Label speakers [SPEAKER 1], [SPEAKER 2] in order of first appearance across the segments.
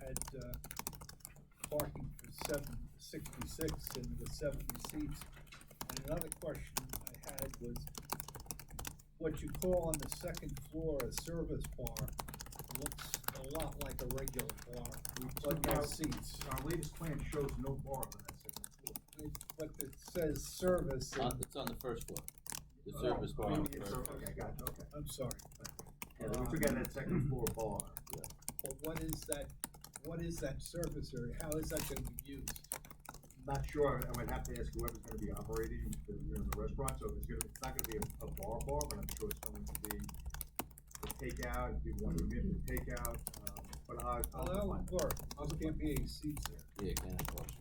[SPEAKER 1] had, uh, parking for seven, sixty-six and there was seventy seats. And another question I had was, what you call on the second floor a service bar looks a lot like a regular bar, but no seats.
[SPEAKER 2] Our latest plan shows no bar on that second floor.
[SPEAKER 1] It- But it says service
[SPEAKER 2] Uh,
[SPEAKER 3] On,
[SPEAKER 1] and,
[SPEAKER 3] it's on the first floor, the
[SPEAKER 2] Oh,
[SPEAKER 3] service bar. on the
[SPEAKER 2] maybe it's
[SPEAKER 3] first
[SPEAKER 2] a-
[SPEAKER 3] floor.
[SPEAKER 2] Okay, got it, okay.
[SPEAKER 1] I'm sorry,
[SPEAKER 2] Yeah, we took out that second floor bar.
[SPEAKER 1] but what is that, what is that service area? How is that gonna be used?
[SPEAKER 2] Not sure, I would have to ask whoever's gonna be operating the, you know, the restaurant, so it's gonna, it's not gonna be a, a bar bar, but I'm sure it's going to be the takeout, if you want to be able to take out, um, but I,
[SPEAKER 1] Well,
[SPEAKER 2] I'll
[SPEAKER 1] that
[SPEAKER 2] find
[SPEAKER 1] would
[SPEAKER 2] out.
[SPEAKER 1] work, there can't be any seats there.
[SPEAKER 3] Yeah, kind of cautious.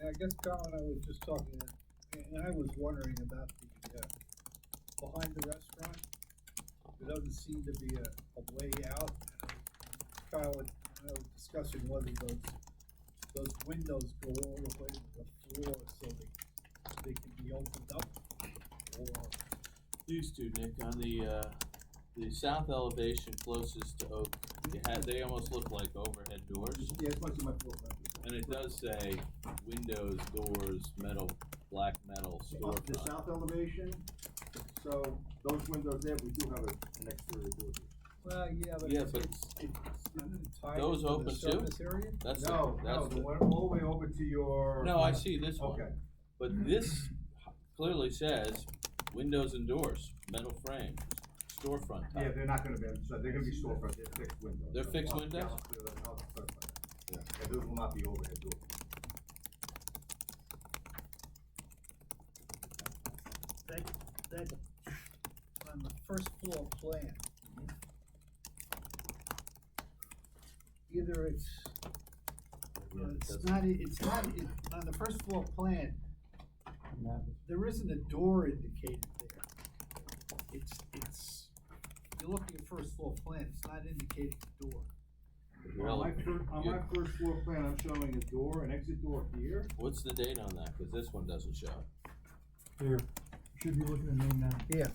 [SPEAKER 1] And I guess Colin, I was just talking, uh, and I was wondering about the, uh, behind the restaurant. There doesn't seem to be a, a way out. Kyle, and I was discussing whether those, those windows go all the way to the floor so they, they can be opened up. Or,
[SPEAKER 3] These two, Nick, on the, uh, the south elevation closest to Oak, they had, they almost look like overhead doors.
[SPEAKER 2] Yeah, it's much of my floor. plan.
[SPEAKER 3] And it does say windows, doors, metal, black metal
[SPEAKER 2] Up the
[SPEAKER 3] storefront.
[SPEAKER 2] south elevation, so those windows there, we do have a, an exterior door. there.
[SPEAKER 1] well, yeah, but
[SPEAKER 3] Yeah,
[SPEAKER 1] it's,
[SPEAKER 3] but
[SPEAKER 1] it's, it's not entirely
[SPEAKER 3] Those
[SPEAKER 1] to the
[SPEAKER 3] open too?
[SPEAKER 1] surface area.
[SPEAKER 3] That's, the-
[SPEAKER 2] No, no,
[SPEAKER 3] that's
[SPEAKER 2] the
[SPEAKER 3] the,
[SPEAKER 2] one all the way over to your.
[SPEAKER 3] no, I see this one,
[SPEAKER 2] Okay,
[SPEAKER 3] but this clearly says windows and doors, metal frames, storefront
[SPEAKER 2] yeah,
[SPEAKER 3] type.
[SPEAKER 2] they're not gonna be, so they're gonna be storefront, they're fixed windows.
[SPEAKER 3] They're fixed
[SPEAKER 2] I'll-
[SPEAKER 3] windows?
[SPEAKER 2] Yeah, I'll clear that, I'll clarify
[SPEAKER 3] Yeah.
[SPEAKER 2] that. Yeah, those will not be overhead doors.
[SPEAKER 1] that, that, on the first floor plan. Either it's,
[SPEAKER 3] Yeah, it
[SPEAKER 1] it's
[SPEAKER 3] does.
[SPEAKER 1] not, it's not, it, on the first floor plan, there isn't a door indicated there. It's, it's, you look at your first floor plan, it's not indicating the door.
[SPEAKER 2] On my
[SPEAKER 3] Really?
[SPEAKER 2] first, on my first floor plan, I'm showing a door, an exit door here.
[SPEAKER 3] What's the date on that? Cause this one doesn't show.
[SPEAKER 4] Here, should be looking at me now.
[SPEAKER 1] Yeah.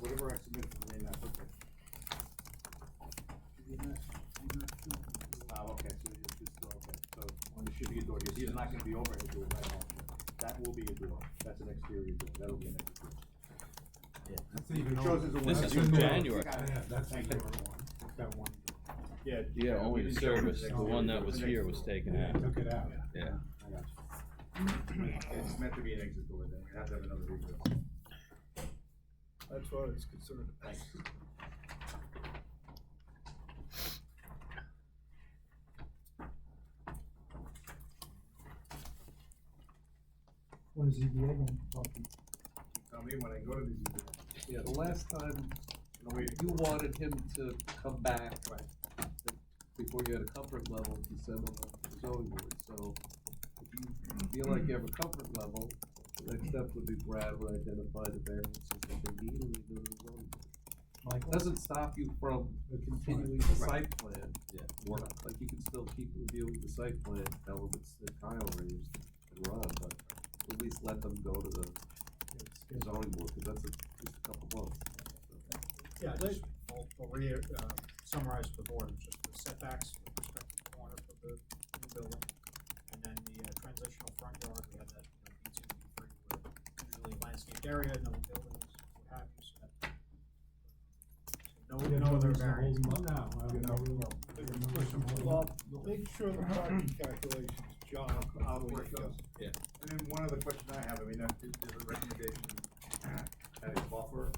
[SPEAKER 2] Whatever I submitted for the main map, okay.
[SPEAKER 1] You're not, you're not doing the door.
[SPEAKER 2] Oh, okay, so it's just, okay, so on the shipping door, because these are not gonna be overhead doors at all. That will be a door, that's an exterior door, that'll be an exit door.
[SPEAKER 4] That's even
[SPEAKER 2] It
[SPEAKER 4] older.
[SPEAKER 2] shows as a
[SPEAKER 3] This
[SPEAKER 2] window.
[SPEAKER 3] is from
[SPEAKER 2] Yeah,
[SPEAKER 3] January.
[SPEAKER 4] Yeah, that's the
[SPEAKER 2] Thank
[SPEAKER 4] newer
[SPEAKER 2] you.
[SPEAKER 4] one, It's that one.
[SPEAKER 2] Yeah.
[SPEAKER 5] Yeah, only
[SPEAKER 2] we
[SPEAKER 5] the
[SPEAKER 2] didn't show
[SPEAKER 5] service,
[SPEAKER 2] it as
[SPEAKER 5] the
[SPEAKER 2] exterior
[SPEAKER 5] one
[SPEAKER 2] door,
[SPEAKER 5] that was
[SPEAKER 2] it's an
[SPEAKER 5] here
[SPEAKER 2] exit
[SPEAKER 5] was
[SPEAKER 2] door.
[SPEAKER 5] taken out,
[SPEAKER 4] Took it out.
[SPEAKER 5] yeah.
[SPEAKER 2] I got you. It's meant to be an exit door, then we have to have another rebuild.
[SPEAKER 1] That's what I was concerned about.
[SPEAKER 2] Thanks.
[SPEAKER 4] What is ZBA going to talk to?
[SPEAKER 2] Tell me when I go to these, meetings,
[SPEAKER 6] Yeah, the last time
[SPEAKER 2] no wait,
[SPEAKER 6] you wanted him to come back
[SPEAKER 2] right,
[SPEAKER 6] before you had a comfort level, he said on the zoning board, so if you feel like you have a comfort level, the next step would be Brad would identify the variances that they need and they go to the zoning board.
[SPEAKER 4] Michael?
[SPEAKER 6] Doesn't stop you from
[SPEAKER 4] That's fine.
[SPEAKER 6] continuing the
[SPEAKER 2] Right.
[SPEAKER 6] site plan.
[SPEAKER 3] Yeah.
[SPEAKER 6] Or, like, you can still keep reviewing the site plan elements that Kyle raised and Ron, but at least let them go to the zoning board, cause that's a, just a couple months.
[SPEAKER 7] Yeah, just, I'll, I'll re, uh, summarize for the board, it's just the setbacks with respect to the corner of the new building. And then the uh, transitional front yard, we had that, you know, B two, B three, where usually landscaped area, no buildings, what have you, so that. so No, no other variance.
[SPEAKER 4] No, I don't know. There's no reason.
[SPEAKER 1] Well, make sure the parking calculations, John,
[SPEAKER 2] I'll
[SPEAKER 1] before
[SPEAKER 2] work
[SPEAKER 1] you go.
[SPEAKER 2] those.
[SPEAKER 3] Yeah.
[SPEAKER 2] And then one other question I have, I mean, uh, is there a recommendation, at a buffer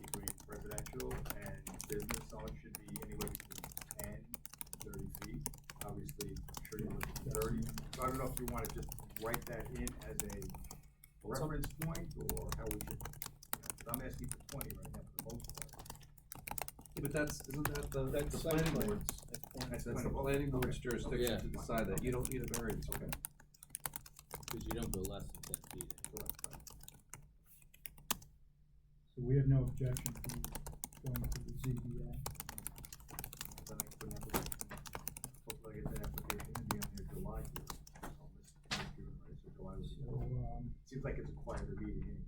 [SPEAKER 2] between residential and business, so it should be anywhere between ten and thirty feet. Obviously, I'm sure you're looking at thirty, so I don't know if you wanna just write that in as a reference point, or how we should, you know, 'cause I'm asking for twenty right now for the most part.
[SPEAKER 6] Yeah, But that's, isn't that the,
[SPEAKER 1] That's
[SPEAKER 6] the
[SPEAKER 1] site
[SPEAKER 6] planning
[SPEAKER 1] plan.
[SPEAKER 6] board's,
[SPEAKER 2] That's
[SPEAKER 6] that's
[SPEAKER 2] kind
[SPEAKER 6] the
[SPEAKER 2] of-
[SPEAKER 6] planning board's
[SPEAKER 2] okay.
[SPEAKER 6] jurisdiction
[SPEAKER 3] Yeah.
[SPEAKER 6] to decide that, you don't need a variance.
[SPEAKER 2] Okay.
[SPEAKER 3] Cause you don't go less than ten feet.
[SPEAKER 2] Correct.
[SPEAKER 4] So we have no objection to going to the ZBA.
[SPEAKER 2] Then I put an application, hopefully I get that application and be on there July here. I'll miss- miss June, right? So July was-
[SPEAKER 4] So, um,
[SPEAKER 2] Seems like it's a quieter meeting